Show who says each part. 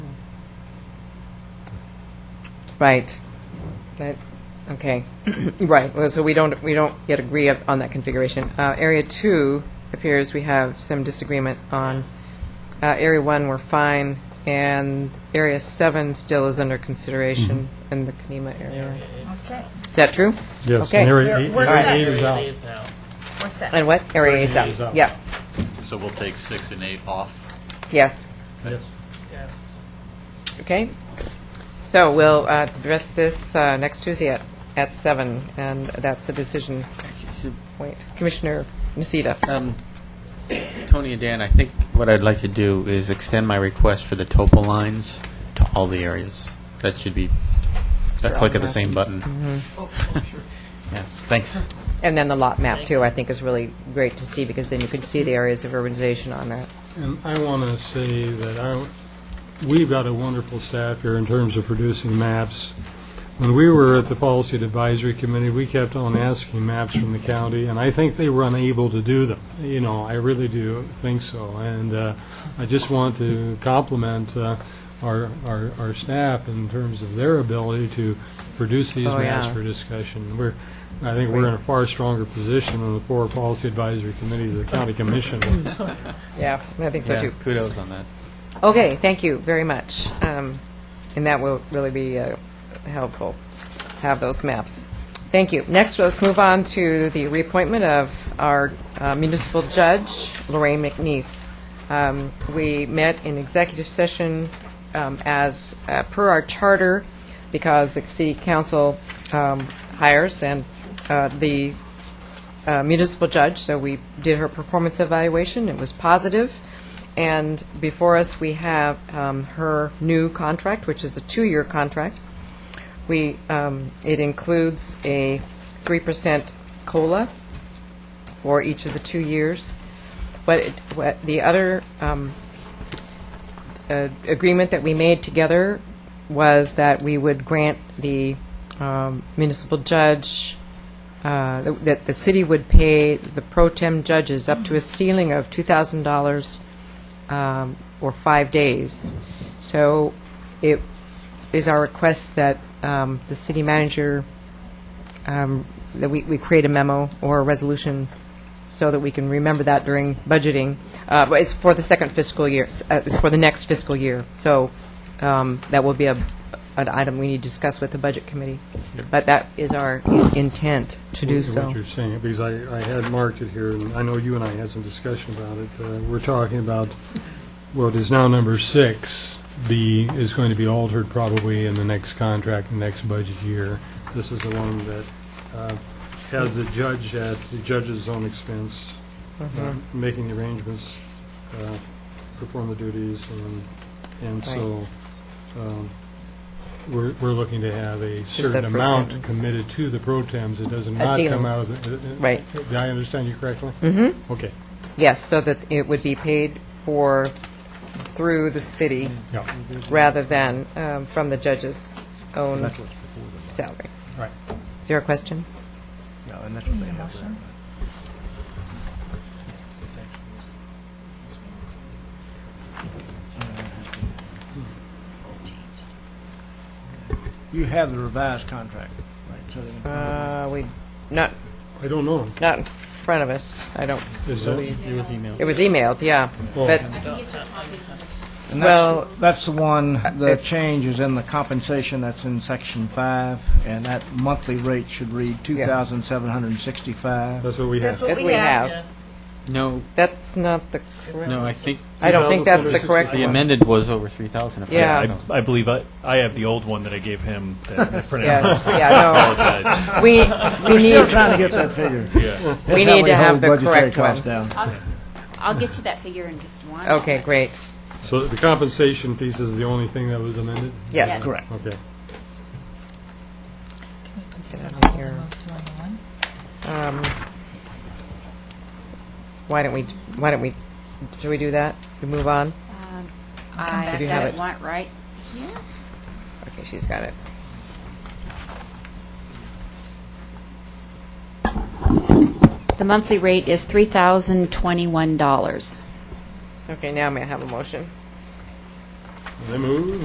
Speaker 1: Right. That, okay, right, well, so we don't, we don't yet agree up- on that configuration. Uh, Area two appears we have some disagreement on. Uh, Area one, we're fine, and area seven still is under consideration in the Kanema area.
Speaker 2: Okay,
Speaker 1: Is that true?
Speaker 3: Mm-hmm. Yes,
Speaker 1: Okay.
Speaker 3: and area
Speaker 2: We're-
Speaker 3: eight,
Speaker 2: we're
Speaker 3: area
Speaker 2: set.
Speaker 3: eight is out.
Speaker 4: Leaves out.
Speaker 2: we're set.
Speaker 1: And what? Area eight's
Speaker 3: is
Speaker 1: up.
Speaker 3: up.
Speaker 1: Yeah,
Speaker 5: So we'll take six and eight off.
Speaker 1: yes,
Speaker 3: Yes.
Speaker 4: Yes.
Speaker 1: okay. So we'll uh, address this uh, next Tuesday at, at seven, and that's a decision point. Commissioner Nocita.
Speaker 6: Um, Tony and Dan, I think what I'd like to do is extend my request for the topo lines to all the areas. That should be a click of the same button.
Speaker 1: Oh,
Speaker 6: Yeah, thanks.
Speaker 1: And then the lot map, too, I think is really great to see, because then you can see the areas of urbanization on that.
Speaker 3: And I want to say that I, we've got a wonderful staff here in terms of producing maps. When we were at the Policy Advisory Committee, we kept on asking maps from the county, and I think they were unable to do them. You know, I really do think so. And uh, I just want to compliment uh, our, our, our staff in terms of their ability to produce these
Speaker 1: Oh,
Speaker 3: maps
Speaker 1: yeah.
Speaker 3: for discussion. We're, I think we're in a far stronger position than the poor Policy Advisory Committee, the county commission was.
Speaker 1: Yeah, I think so,
Speaker 6: Yeah,
Speaker 1: too.
Speaker 6: Kudos on that.
Speaker 1: Okay, thank you very much. Um, And that will really be uh, helpful, have those maps. Thank you. Next, let's move on to the reappointment of our uh, municipal judge, Lorraine McNeese. Um, We met in executive session um, as, uh, per our charter, because the city council um, hires and uh, the uh, municipal judge, so we did her performance evaluation. It was positive. And before us, we have um, her new contract, which is a two-year contract. We, um, it includes a 3% COLA for each of the two years. But it- what the other um, uh, agreement that we made together was that we would grant the um, municipal judge, uh, that the city would pay the pro tem judges up to a ceiling of $2,000 um, or five days. So it is our request that um, the city manager, um, that we we create a memo or a resolution so that we can remember that during budgeting. Uh, but It's for the second fiscal year, s- uh, it's for the next fiscal year. So um, that will be a an item we need to discuss with the Budget Committee. But that is our in- intent to do so.
Speaker 3: What you're saying, because I, I had marked it here, and I know you and I had some discussion about it. Uh, We're talking about what is now number six, the, is going to be altered probably in the next contract, the next budget year. This is the one that uh, has the judge at the judge's own expense, uh,
Speaker 1: Mm-hmm.
Speaker 3: making the arrangements, uh, perform the duties, and, and so um, we're, we're looking to have a certain
Speaker 1: that first
Speaker 3: amount
Speaker 1: sentence.
Speaker 3: committed to the pro tems. It doesn't not
Speaker 1: ceiling.
Speaker 3: come out of the... uh, uh,
Speaker 1: Right.
Speaker 3: Did I understand you correctly? Mm-hmm. Okay,
Speaker 1: Yes, so that it would be paid for through the city
Speaker 3: yeah,
Speaker 1: rather than um, from the judge's own salary.
Speaker 3: right.
Speaker 1: Is there a question?
Speaker 7: You have the revised contract, right? So they-
Speaker 1: Uh, we, not,
Speaker 3: I don't know.
Speaker 1: not in front of us, I don't,
Speaker 3: Is that-
Speaker 1: it was emailed, yeah.
Speaker 3: Oh.
Speaker 1: But,
Speaker 7: and that's-
Speaker 1: well-
Speaker 7: That's the one, the
Speaker 1: it-
Speaker 7: change is in the compensation that's in section five, and that monthly rate should read two thousand seven hundred and sixty-five.
Speaker 3: That's what we
Speaker 2: That's
Speaker 3: have.
Speaker 2: what
Speaker 1: as
Speaker 2: we have.
Speaker 6: No,
Speaker 1: that's not the correct,
Speaker 6: no, I think
Speaker 1: I don't think that's the correct
Speaker 6: the
Speaker 1: one.
Speaker 6: amended was over 3,000. if I
Speaker 1: Yeah.
Speaker 6: recall.
Speaker 8: I believe I, I have the old one that I gave him. That I printed out.
Speaker 1: Yes, yeah,
Speaker 8: Apologize.
Speaker 1: no, we, we
Speaker 7: Still
Speaker 1: need,
Speaker 7: trying to get that figure.
Speaker 1: we
Speaker 7: That's how
Speaker 1: need to have
Speaker 7: hold
Speaker 1: the
Speaker 7: budgetary
Speaker 1: correct
Speaker 7: costs
Speaker 1: one.
Speaker 7: down.
Speaker 2: I'll get you that figure in just one.
Speaker 1: Okay, great,
Speaker 3: So the compensation piece is the only thing that was amended?
Speaker 1: yes.
Speaker 7: Correct.
Speaker 3: Okay.
Speaker 1: Here. Um, Why don't we, why don't we, should we do that? We move on?
Speaker 2: I
Speaker 1: You
Speaker 2: got
Speaker 1: have
Speaker 2: it
Speaker 1: it.
Speaker 2: one right here.
Speaker 1: Okay, she's got it.
Speaker 2: The monthly rate is three thousand twenty-one dollars.
Speaker 1: Okay, now may I have a motion?
Speaker 3: I move